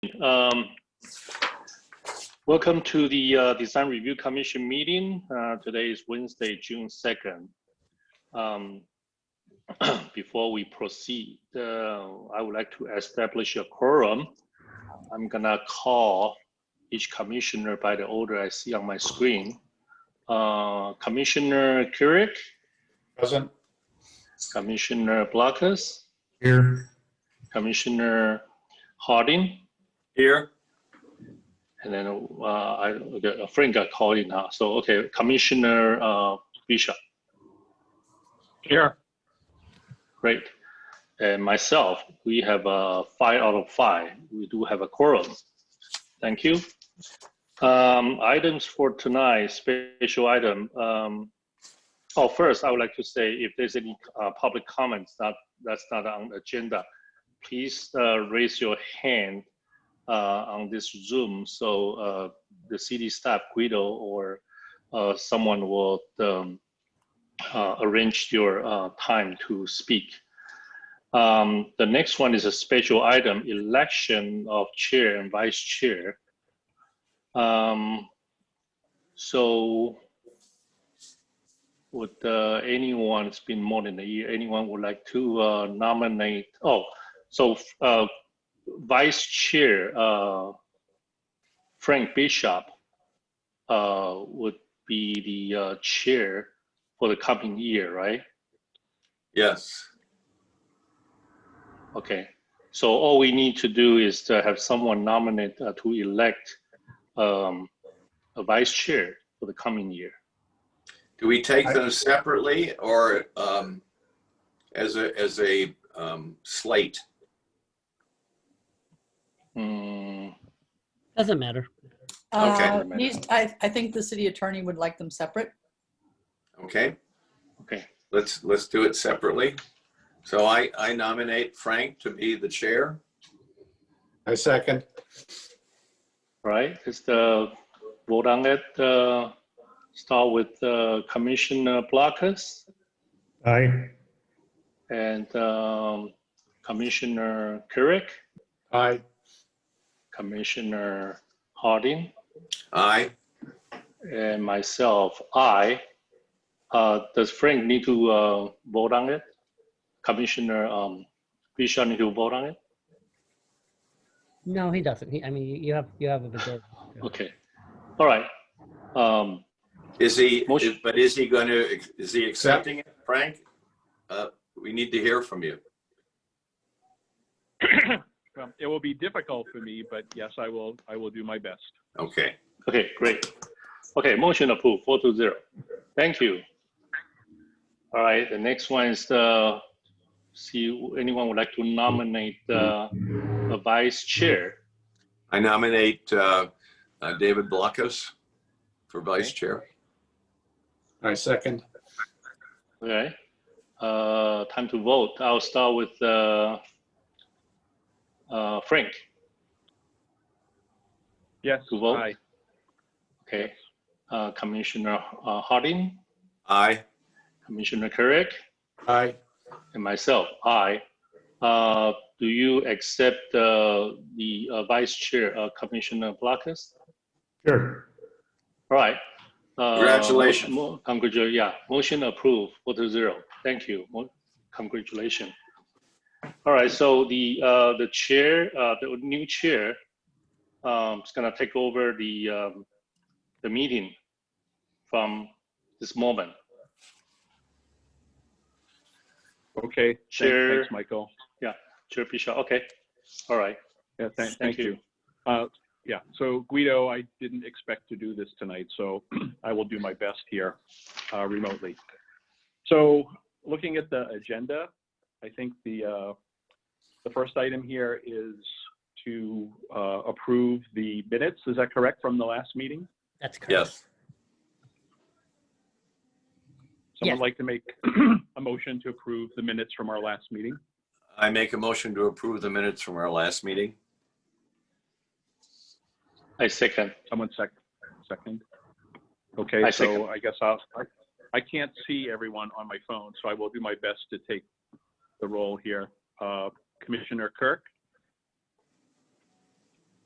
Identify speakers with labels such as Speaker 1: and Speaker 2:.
Speaker 1: Um, Welcome to the uh, Design Review Commission meeting. Uh, Today is Wednesday, June 2nd. Um, Before we proceed, uh, I would like to establish a quorum. I'm gonna call each commissioner by the order I see on my screen. Uh, Commissioner Keurig,
Speaker 2: Present.
Speaker 1: Commissioner Blockus,
Speaker 2: Here.
Speaker 1: Commissioner Harding,
Speaker 2: Here.
Speaker 1: And then uh, I, the- a friend got called in now. So, okay, Commissioner uh, Bishop,
Speaker 2: Here.
Speaker 1: great. And myself, we have uh, five out of five. We do have a quorum. Thank you. Um, Items for tonight, special item. um, Oh, first, I would like to say if there's any uh, public comments that, that's not on the agenda, please uh, raise your hand uh, on this Zoom, so uh, the city staff, Guido, or uh, someone will um, uh, arrange your uh, time to speak. Um, The next one is a special item, election of chair and vice chair. Um, So would uh, anyone, it's been more than a year, anyone would like to uh, nominate, oh, so uh, Vice Chair uh, Frank Bishop uh, would be the uh, chair for the coming year, right?
Speaker 3: Yes.
Speaker 1: Okay. So all we need to do is to have someone nominate uh, to elect um, a vice chair for the coming year.
Speaker 3: Do we take them separately or um, as a, as a um, slate?
Speaker 1: Hmm,
Speaker 4: Doesn't matter.
Speaker 3: Okay.
Speaker 5: Uh, these- I, I think the city attorney would like them separate.
Speaker 3: Okay,
Speaker 1: okay.
Speaker 3: let's, let's do it separately. So I, I nominate Frank to be the chair.
Speaker 2: I second.
Speaker 1: All right. Is the vote on it uh, start with uh, Commissioner Blockus?
Speaker 2: Aye.
Speaker 1: And um, Commissioner Couric,
Speaker 2: Aye.
Speaker 1: Commissioner Harding,
Speaker 3: Aye.
Speaker 1: and myself, I. Uh, Does Frank need to uh, vote on it? Commissioner um, Bishop need to vote on it?
Speaker 4: No, he doesn't. He, I mean, you- you have, you have a majority.
Speaker 1: Okay, all right. Um,
Speaker 3: Is he,
Speaker 1: Motion.
Speaker 3: but is he going to, is he accepting it, Frank? Uh, We need to hear from you.
Speaker 6: Um, It will be difficult for me, but yes, I will, I will do my best.
Speaker 3: Okay.
Speaker 1: Okay, great. Okay, motion approved, four to zero. Thank you. All right, the next one is the, see, anyone would like to nominate uh, a vice chair?
Speaker 3: I nominate uh, uh, David Blockus for vice
Speaker 1: Okay.
Speaker 3: chair.
Speaker 2: I second.
Speaker 1: Okay, uh, time to vote. I'll start with, uh, uh, Frank
Speaker 6: Yes.
Speaker 1: to vote.
Speaker 6: aye.
Speaker 1: Okay, uh, Commissioner uh, Harding,
Speaker 3: Aye.
Speaker 1: Commissioner Carrick,
Speaker 2: Aye.
Speaker 1: and myself, I. Uh, do you accept, uh, the uh, Vice Chair, uh, Commissioner Blockus?
Speaker 2: Sure.
Speaker 1: All right. Uh,
Speaker 3: Congratulations.
Speaker 1: mo- mo- Congratulations, yeah. Motion approved, four to zero. Thank you. Mo- Congratulations. All right, so the, uh, the chair, uh, the new chair, um, is gonna take over the, um, the meeting from this moment.
Speaker 6: Okay. Thank-
Speaker 1: Chair.
Speaker 6: Thanks, Michael.
Speaker 1: Chair Bishop, okay. All right,
Speaker 6: Yeah, thank,
Speaker 1: Thank
Speaker 6: thank you. Uh, yeah, so Guido, I didn't expect to do this tonight, so I will do my best here uh, remotely. So looking at the agenda, I think the, uh, the first item here is to uh, approve the minutes. Is that correct from the last meeting?
Speaker 4: That's correct.
Speaker 3: Yes.
Speaker 4: Yes.
Speaker 6: Someone like to make a motion to approve the minutes from our last meeting?
Speaker 3: I make a motion to approve the minutes from our last meeting.
Speaker 1: I second.
Speaker 6: Someone sec, second? Okay,
Speaker 1: I second.
Speaker 6: so I guess I'll, I, I can't see everyone on my phone, so I will do my best to take the role here. Uh, Commissioner Kirk,